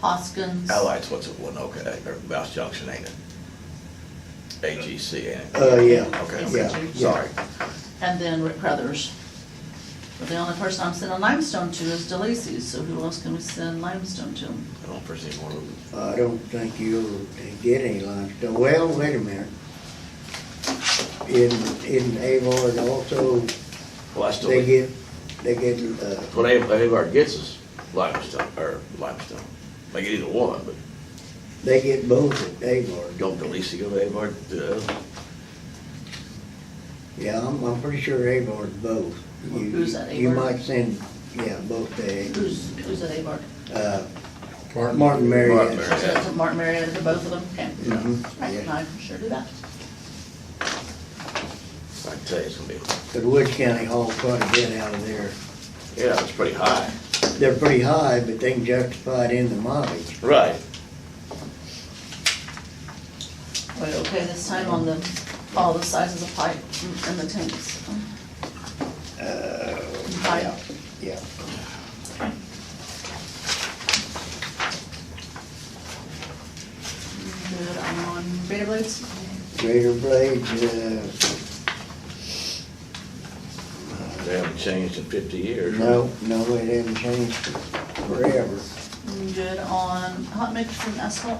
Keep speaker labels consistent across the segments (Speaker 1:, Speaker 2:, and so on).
Speaker 1: Hoskins.
Speaker 2: Allied's what's at Winoka, eh, or Mouse Junction, ain't it? AGC, ain't it?
Speaker 3: Uh, yeah.
Speaker 2: Okay,
Speaker 1: Yes,
Speaker 3: Yeah,
Speaker 2: okay,
Speaker 3: yeah.
Speaker 2: sorry.
Speaker 1: And then Rick Crothers. But the only person I'm sending limestone to is DeLacy, so who else can we send limestone to?
Speaker 2: I don't foresee more of
Speaker 3: Uh, I don't think you'll get any limestone. Well, wait a minute. In, in Avard also,
Speaker 2: Well, I still,
Speaker 3: they
Speaker 2: what
Speaker 3: get, they get, uh,
Speaker 2: Av- Avard gets is limestone, or limestone. They get either one, but
Speaker 3: they get both at Avard.
Speaker 2: don't Delisi go to Avard? Uh,
Speaker 3: Yeah, I'm, I'm pretty sure Avard's both.
Speaker 1: Well,
Speaker 3: You-
Speaker 1: who's at
Speaker 3: You
Speaker 1: Avard?
Speaker 3: might send, yeah, both to,
Speaker 1: Who's, who's at Abar?
Speaker 3: uh, Martin Marietta.
Speaker 2: Martin
Speaker 1: So it's Martin Marietta to both of them? Okay.
Speaker 3: Mhm,
Speaker 1: I can
Speaker 3: yeah.
Speaker 1: I can sure do that.
Speaker 2: I can tell you, it's gonna be,
Speaker 3: But Wood County hauls quite a bit out of there.
Speaker 2: yeah, it's pretty high.
Speaker 3: They're pretty high, but they can justify it in the mileage.
Speaker 2: Right.
Speaker 1: Wait, okay, this time on the, all the sizes of pipe and the tanks.
Speaker 3: Uh,
Speaker 1: Pipe.
Speaker 3: yeah, yeah.
Speaker 1: Good, I'm on Beta Blades.
Speaker 3: Greater Blades, uh,
Speaker 2: They haven't changed in fifty years.
Speaker 3: no, no, it hasn't changed forever.
Speaker 1: Good on hot mix and asphalt.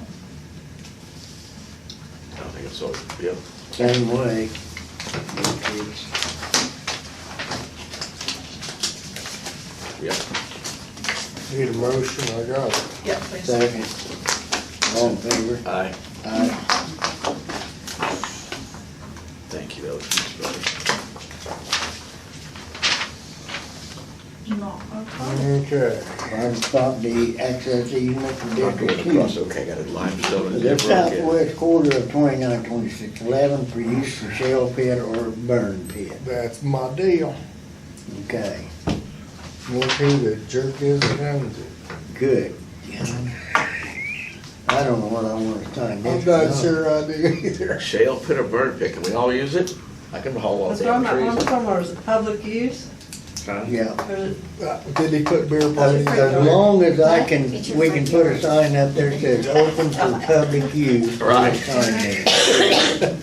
Speaker 2: I don't think it's so, yeah.
Speaker 3: Same way. It's-
Speaker 2: Yeah,
Speaker 4: Need a motion, I got it.
Speaker 1: Yep, please.
Speaker 3: Second. All in favor?
Speaker 2: aye.
Speaker 3: Aye.
Speaker 2: Thank you, that was much better.
Speaker 1: Not our problem.
Speaker 4: Okay.
Speaker 3: Fire stop the access easement for
Speaker 2: Not
Speaker 3: District
Speaker 2: going
Speaker 3: Two.
Speaker 2: across, okay, got a limestone and
Speaker 3: The
Speaker 2: different.
Speaker 3: southwest quarter of twenty-nine, twenty-six, eleven for use for shell pit or burn pit.
Speaker 4: That's my deal.
Speaker 3: Okay,
Speaker 4: One thing that jerk is it owns it.
Speaker 3: good. I don't know what I want to sign
Speaker 4: I'm
Speaker 3: next.
Speaker 4: not sure I do either.
Speaker 2: Shale pit or burn pit, can we all use it? I can haul all
Speaker 5: That's what I'm
Speaker 2: damn
Speaker 5: not, one
Speaker 2: trees.
Speaker 5: of them, or is it public use?
Speaker 3: Yeah,
Speaker 5: Or is it-
Speaker 4: Uh, Did he put beer
Speaker 3: as
Speaker 4: parties
Speaker 3: as
Speaker 4: on it?
Speaker 3: long as I can, we can put a sign up there that says open for public use. I'll
Speaker 2: Right.
Speaker 3: sign there.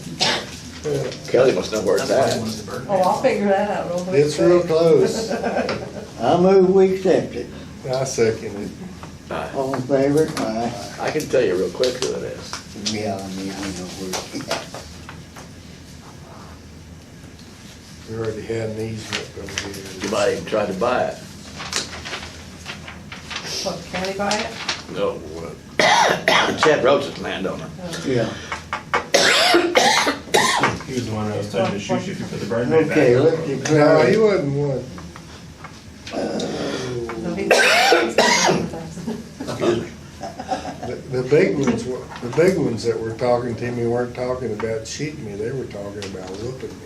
Speaker 2: Kelly must know where it's at.
Speaker 5: Oh, I'll figure that out real quick.
Speaker 4: It's real close.
Speaker 3: I move we accept it.
Speaker 4: I second it.
Speaker 2: Aye.
Speaker 3: All in favor? Aye.
Speaker 2: Uh, I can tell you real quick who it is.
Speaker 3: Yeah, I mean, I know where.
Speaker 4: We already had an easement over here.
Speaker 2: You might even try to buy it.
Speaker 5: What, can we buy it?
Speaker 2: No. uh, Chad Rhodes is the landowner.
Speaker 3: Yeah.
Speaker 6: He was the one that was telling you to shoot you if you put the burn ban back.
Speaker 3: Okay, let's
Speaker 4: No, he
Speaker 3: declare,
Speaker 4: wasn't one.
Speaker 5: No, he- That's
Speaker 4: The, the big ones, were- the big ones that were talking to me weren't talking about shooting me, they were talking about whooping me.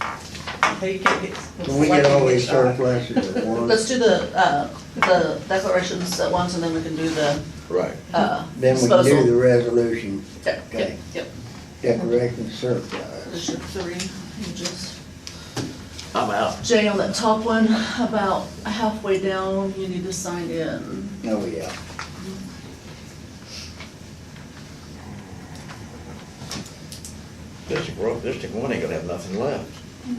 Speaker 5: how you can get-
Speaker 3: can we get all these
Speaker 5: Shot.
Speaker 3: surpluses at once?
Speaker 1: Let's do the, uh, the declarations at once and then we can do the,
Speaker 2: Right.
Speaker 1: uh,
Speaker 3: Then we can do
Speaker 1: disposal.
Speaker 3: the resolution
Speaker 1: Yep, yep,
Speaker 3: Okay.
Speaker 1: yep.
Speaker 3: declaration surplus.
Speaker 1: There's your three, you just.
Speaker 2: I'm out.
Speaker 1: Jay, on that top one, about halfway down, you need to sign in.
Speaker 3: Oh, yeah.
Speaker 2: District one, District one ain't gonna have nothing left.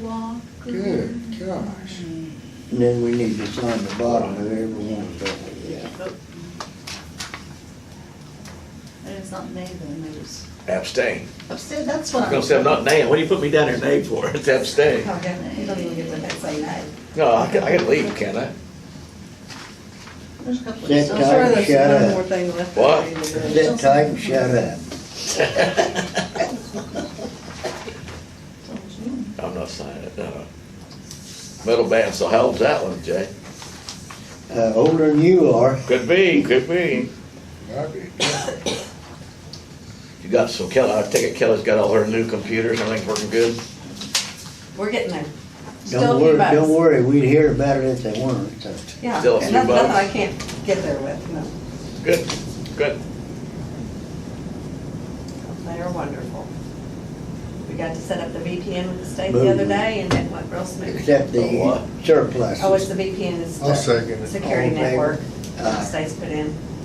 Speaker 4: Good Oh, gosh.
Speaker 3: And then we need to sign the bottom of every one of them, yeah.
Speaker 1: Nope. And it's not named, then they just,
Speaker 2: Abstain.
Speaker 1: upstairs, that's what
Speaker 2: I'm
Speaker 1: I'm.
Speaker 2: gonna say I'm not named. What do you put me down here named for? It's abstain.
Speaker 5: Oh, yeah, You don't even get the next thing.
Speaker 2: No, I can, I can leave, can't I?
Speaker 1: There's a couple of
Speaker 3: Sit
Speaker 5: I'm
Speaker 1: stuff.
Speaker 3: down.
Speaker 5: sure
Speaker 3: Shut
Speaker 5: there's
Speaker 3: up.
Speaker 5: one more thing left.
Speaker 2: What?
Speaker 3: Sit tight and shut up.
Speaker 2: I'm not signing it, no. Metal band, so how old's that one, Jay?
Speaker 3: Uh, older than you are,
Speaker 2: Could be, could be.
Speaker 4: Might be.
Speaker 2: You got, so Kelly, I take it Kelly's got all her new computers, everything's working good?
Speaker 5: We're getting there. Still a
Speaker 3: don't
Speaker 5: few
Speaker 3: worry,
Speaker 5: bucks.
Speaker 3: don't worry, we'd hear about it if they weren't, uh, so.
Speaker 5: Yeah,
Speaker 2: Still a
Speaker 5: and
Speaker 2: few
Speaker 5: that's nothing
Speaker 2: bucks.
Speaker 5: I can't get there with, no.
Speaker 2: Good, good.
Speaker 5: They are wonderful. We got to set up the VPN with the state the other day, and it went real smooth.
Speaker 3: Except
Speaker 2: The
Speaker 3: the
Speaker 2: what?
Speaker 3: surplus.
Speaker 5: Oh, it's the VPN, it's
Speaker 4: I'll second
Speaker 5: the
Speaker 4: it.
Speaker 3: All
Speaker 5: security
Speaker 3: in favor?
Speaker 5: network that the
Speaker 3: Aye.
Speaker 5: state's put in.